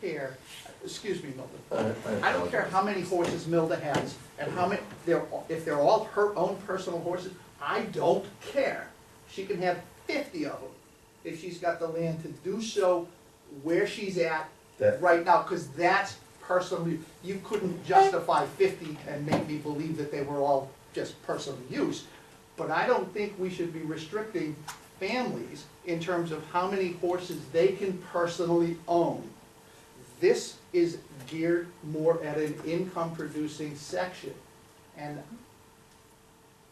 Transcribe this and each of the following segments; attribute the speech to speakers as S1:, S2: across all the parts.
S1: care, excuse me, Milton,
S2: I
S1: I don't care how many horses Milda has, and how many, they're, all- if they're all her own personal horses, I don't care. She can have fifty of them, if she's got the land to do so where she's at
S2: That-
S1: right now, because that's personal use. You couldn't justify fifty and make me believe that they were all just personal use. But I don't think we should be restricting families in terms of how many horses they can personally own. This is geared more at an income-producing section. And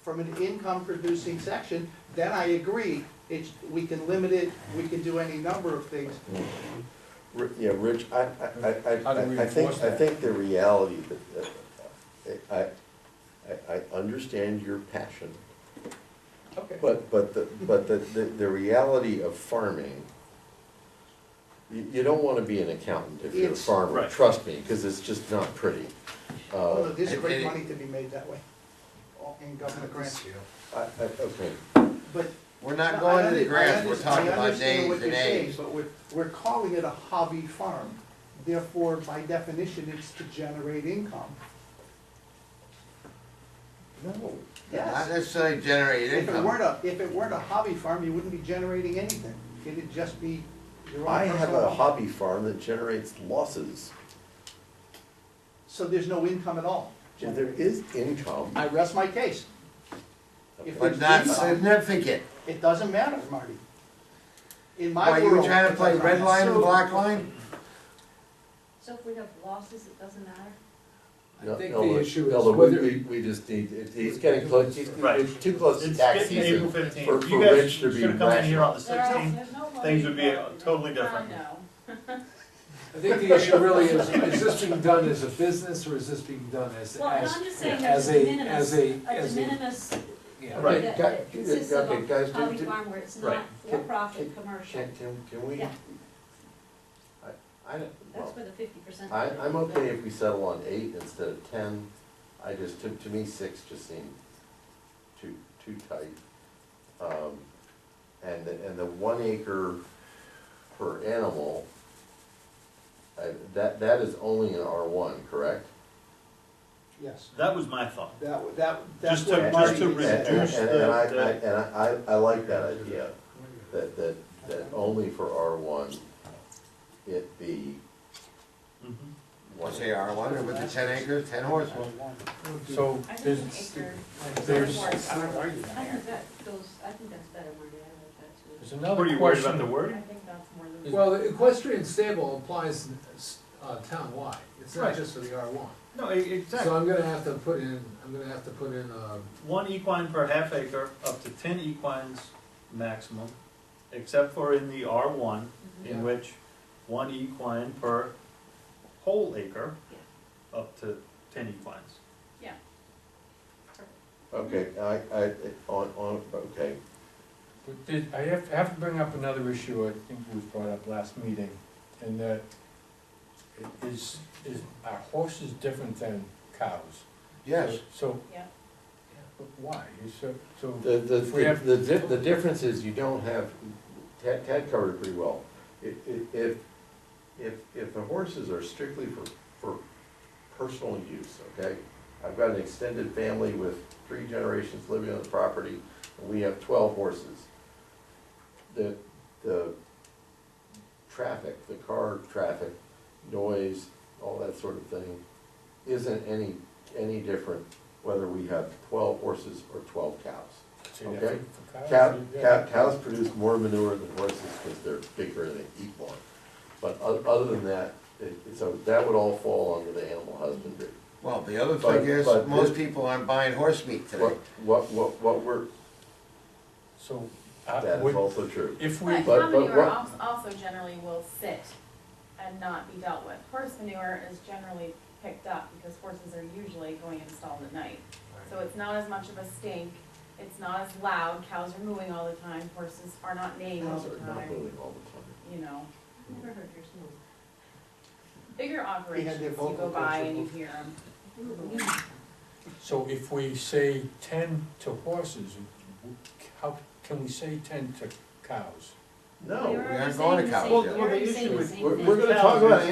S1: from an income-producing section, then I agree, it's, we can limit it, we can do any number of things.
S2: Ri- Yeah, Rich, I, I- I,
S3: How do we
S2: I, I think,
S3: enforce
S2: I
S3: that?
S2: think the reality that, that, I, I, I understand your passion,
S1: Okay.
S2: but, but the, but the, the, the reality of farming, you, you don't wanna be an accountant if you're a
S1: It's-
S2: farmer,
S3: Right.
S2: trust me, cause it's just not pretty. Uh,
S1: Although there's
S3: and-
S1: great
S3: and-
S1: money to be made that way, all in government grants,
S2: I, I, okay,
S1: but.
S4: We're
S1: No,
S4: not
S1: I
S4: going to the
S1: under- I
S4: grass, we're
S1: under-
S4: talking
S1: I
S4: about
S1: understand
S4: names
S1: what
S4: and
S1: you're saying,
S4: names.
S1: But we're, we're calling it a hobby farm, therefore, by definition, it's to generate income.
S2: no,
S4: Not
S1: Yes,
S4: necessarily generate
S1: if it weren't
S4: income.
S1: a, if it weren't a hobby farm, you wouldn't be generating anything, it'd just be your own
S2: I have
S1: personal
S2: a
S1: hobby.
S2: hobby farm that generates losses,
S1: So there's no income at all.
S2: and there is income.
S1: I rest my case, if
S4: But not
S1: Income.
S4: significant.
S1: it doesn't matter, Marty. In my
S4: Why,
S1: world.
S4: you were trying to
S1: it
S4: play
S1: doesn't
S4: red
S1: matter.
S4: line and
S3: So-
S4: black line?
S5: So if we have losses, it doesn't matter?
S2: No,
S3: I think
S2: no,
S3: the
S2: we-
S3: issue
S2: no,
S3: is
S2: but we-
S3: whether.
S2: We, we just need, it- it's getting close, it's
S6: Right.
S2: it's too close to
S6: It's
S2: tax
S6: getting April
S2: season. for-
S6: fifteenth.
S2: for
S6: You guys
S2: Rich to be
S6: should have come in here on the
S5: There are-
S6: sixteenth.
S5: there's no
S6: things would be, uh,
S5: losses.
S6: totally different.
S5: I know.
S3: I think the issue really is, is this being done as a business or is this being done as,
S5: Well, and
S3: as,
S5: I'm just saying there's
S3: as
S5: a
S3: a,
S5: de minimis,
S3: as
S5: a
S3: a,
S5: de
S3: as a,
S5: minimis
S3: yeah.
S6: Right.
S5: that-
S2: Guy-
S5: that consists of
S2: okay, guys,
S5: a hobby
S2: do- do-
S5: farm where it's
S6: Right.
S5: not for-profit commercial.
S2: Can, can, can we?
S5: Yeah.
S2: I, I, don't-
S5: That's
S2: well,
S5: where the fifty percent.
S2: I, I'm okay if we settle on eight instead of ten. I just, to, to me, six just seemed too, too tight. Um, and, the- and the one acre per animal, I, that, that is only in R one, correct?
S1: Yes,
S6: That was my thought.
S1: that, would- that, that's
S6: Just to-
S1: what
S6: just
S1: Marty
S6: to
S1: said.
S2: And- and-
S6: reduce
S2: And
S6: the-
S2: and I,
S6: the-
S2: I- and I, I I like that idea, that, that, that only for R one, it be Mm-hmm.
S6: Mhm.
S2: one.
S4: Say R one, or with the ten acres, ten horse one.
S7: So
S5: I think an
S7: there's,
S5: acre,
S7: there's,
S5: I don't I
S7: there's
S5: think that goes, I think that's better, Marty, I like that
S7: another
S6: Were you worried about the
S7: question.
S5: too. I
S6: wording?
S5: think that's more than.
S3: Well, the equestrian stable applies uh, townwide, it's not
S6: Right.
S3: just for the R one.
S6: No, e- exactly.
S3: So I'm gonna have to put in, I'm gonna have to put in, um,
S6: One equine per half acre, up to ten equines maximum, except for in the R one,
S3: Yeah.
S6: in which one equine per whole acre, up to ten equines.
S5: Yeah.
S2: Okay, I, I, on, on, okay,
S7: but did- I have, I have to bring up another issue I think was brought up last meeting, and that i- is, is, are horses different than cows?
S4: Yes,
S7: So,
S5: Yeah,
S7: but why? You So, so,
S2: the, the,
S7: We have-
S2: the, di- the difference is you don't have, Tad, Tad covered it pretty well. If, if, if, if the horses are strictly for, for personal use, okay? I've got an extended family with three generations living on the property, and we have twelve horses. The, the traffic, the car traffic, noise, all that sort of thing, isn't any, any different whether we have twelve horses or twelve cows.
S7: so you have
S2: Okay.
S7: for cows,
S2: Cow,
S7: you
S2: cow,
S7: got-
S2: cows produce more manure than horses because they're bigger and they eat more. But oth- other than that, it, so that would all fall under the animal husbandry.
S4: well, the other
S2: But-
S4: thing is,
S2: but
S4: most
S2: this-
S4: people aren't buying horse meat today.
S2: What, what, what, what we're,
S7: So,
S2: that
S7: uh,
S2: is
S7: would,
S2: also true.
S7: if we,
S8: But
S2: But-
S8: cow
S2: but
S8: manure
S2: what-
S8: als- also generally will sit and not be dealt with. Horse manure is generally picked up because horses are usually going installed at night. So it's not as much of a stink, it's not as loud, cows are mooing all the time, horses are not neighing all
S2: Cows
S8: the
S2: are not
S8: time,
S2: moving all the
S8: you know.
S5: never heard yours move.
S8: Bigger operations, you
S1: vocal
S8: go by
S1: cords
S8: and you hear them.
S7: so if we say ten to horses, w- how, can we say ten to cows?
S2: time. No,
S4: aren't going to cows
S5: You're
S4: yet.
S5: already saying the same
S2: we're,
S5: thing.
S2: we're gonna talk about